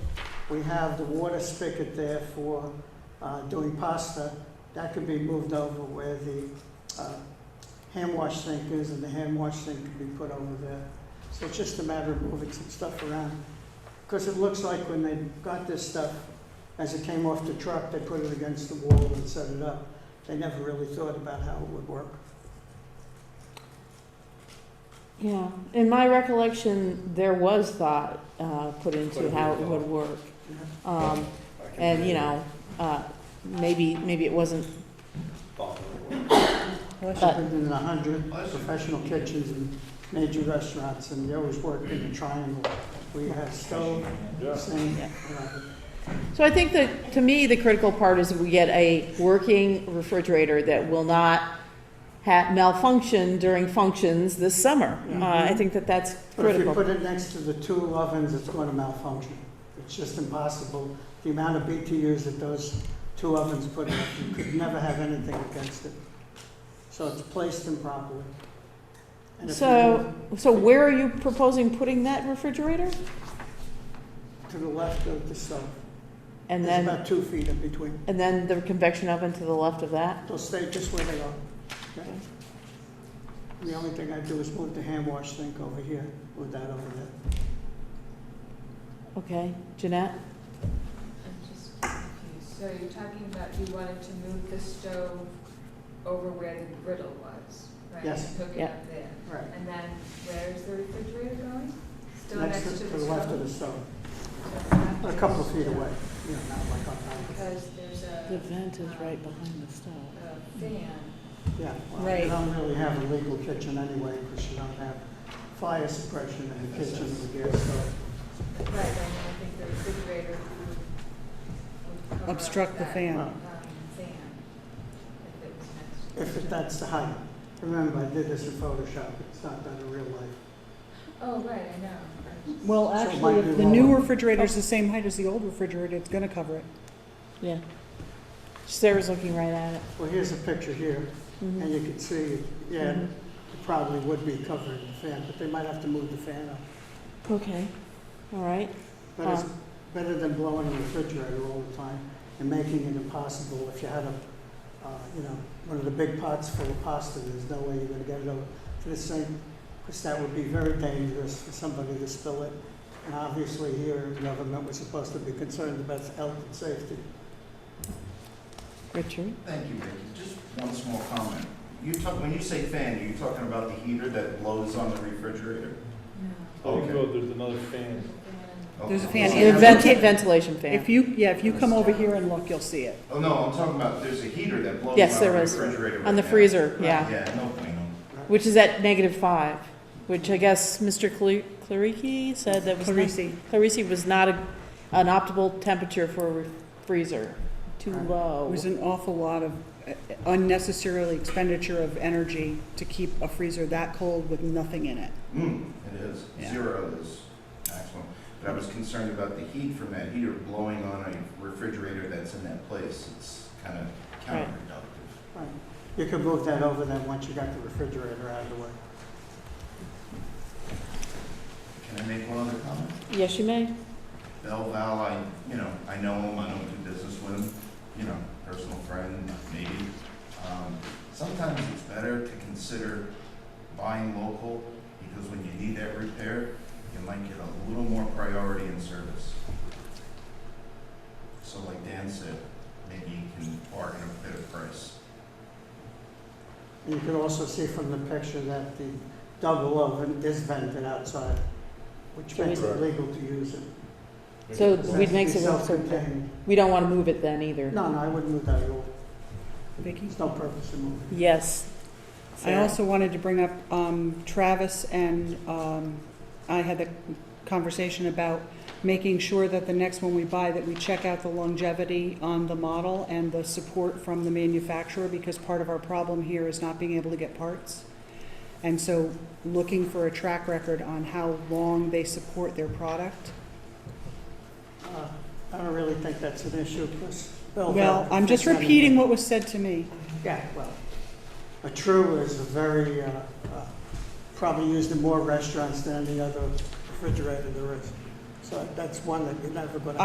We have the water spigot there for uh, doing pasta. That could be moved over where the uh, hand wash sink is, and the hand wash sink could be put over there. So it's just a matter of moving some stuff around. Because it looks like when they got this stuff, as it came off the truck, they put it against the wall and set it up. They never really thought about how it would work. Yeah, in my recollection, there was thought uh, put Put into it how it in would work. you know? Um, And, you know, uh, maybe, maybe it wasn't, Well, But- I've been in a hundred professional kitchens and major restaurants, and you always work in a triangle. We have stove, sink, Yeah. you know, so I think that, to me, the critical part is we get a working refrigerator that will not ha malfunction during functions this summer. Uh, I think that that's Mm-hmm. But if you critical. put it next to the two ovens, it's going to malfunction. It's just impossible. The amount of BTUs that those two ovens put out, you could never have anything against it. So it's placed improperly. And if So, so where are you proposing putting that refrigerator? you- To the left of the stove, And there's then, about two feet in between. and then the convection oven to the left of that? They'll stay just where they are. okay? The only thing I do is move the hand wash sink over here, move that over there. Okay, Jeanette? I'm just confused. So you're talking about you wanted to move the stove over where the griddle was, right? Yes. Hook it Yeah. up there. Right. And then where's the refrigerator going? Still Next to, to the left of the stove, stove? a couple of feet away, you know, not like on top. Because there's a. behind the stove. um, A fan. Yeah, well, Right. you don't really have a legal kitchen anyway, because you don't have fire suppression in the kitchen with a gas stove. Right, I mean, I think the refrigerator would- would cover up Obstruct the that, fan. um, Fan. If it was next to. If it- that's the height. Remember, I did this in Photoshop, it's not done in real life. Oh, right, I know. I just- Well, So it actually, might be if the new lower. refrigerator's the same height as the old refrigerator, it's gonna cover it. Oh, Yeah. Sarah's looking right at it. Well, here's a picture here, and you can see, yeah, it probably would be covering the fan, but they might have to move the fan up. Mm-hmm. Okay, all right. But it's Um, better than blowing a refrigerator all the time and making it impossible. If you had a, uh, you know, one of the big pots full of pasta, there's no way you're gonna get it over to the sink, because that would be very dangerous for somebody to spill it. And obviously here, the government was supposed to be concerned about health and safety. Richard? Thank you, Vicky. Just one small comment. You talk, when you say fan, are you talking about the heater that blows on the refrigerator? No, Oh, Okay. no, there's another fan. fan. There's a Okay. fan So in that's- vent- ventilation If you, yeah, if you come over here and look, you'll see it. Oh, no, I'm talking about, there's a heater that blows on Yes, the there is. refrigerator. right On the now. freezer, Right. yeah, Yeah, no problem. which is at negative five, which I guess Mr. Cle- Clariki said that was not. Parisi. Clarisi was not a- an optimal temperature for a re- freeser, too Right. It low. was an awful lot of uh, unnecessarily expenditure of energy to keep a freezer that cold with nothing in it. Mm, it is. Yeah. Zero is maximum. But I was concerned about the heat from that heater blowing on a refrigerator that's in that place. It's kind of Right. counterproductive. Right. You could move that over then once you got the refrigerator out of the way. Can I make one other comment? Yes, you may. Bell Val, I, you know, I know him, I don't do business with him, you know, personal friend, maybe. Um, Sometimes it's better to consider buying local, because when you need that repair, you might get a little more priority in service. So like Dan said, maybe you can bargain a bit of price. And you could also see from the picture that the double oven is vented outside, which So makes it is- legal to use it. So It has we'd to make be it also- self-contained. We don't want to move it then either. No, no, I wouldn't move that at all. Vicky? There's no purpose in moving. Yes. I Sarah. also wanted to bring up um, Travis and um, I had the conversation about making sure that the next one we buy, that we check out the longevity on the model and the support from the manufacturer, because part of our problem here is not being able to get parts. And so looking for a track record on how long they support their product. Uh, I don't really think that's an issue, because. Well, I'm just repeating what was said to me. Yeah, well, a true is a very, uh, uh, probably used in more restaurants than any other refrigerator there is. So that's one that you're never going to.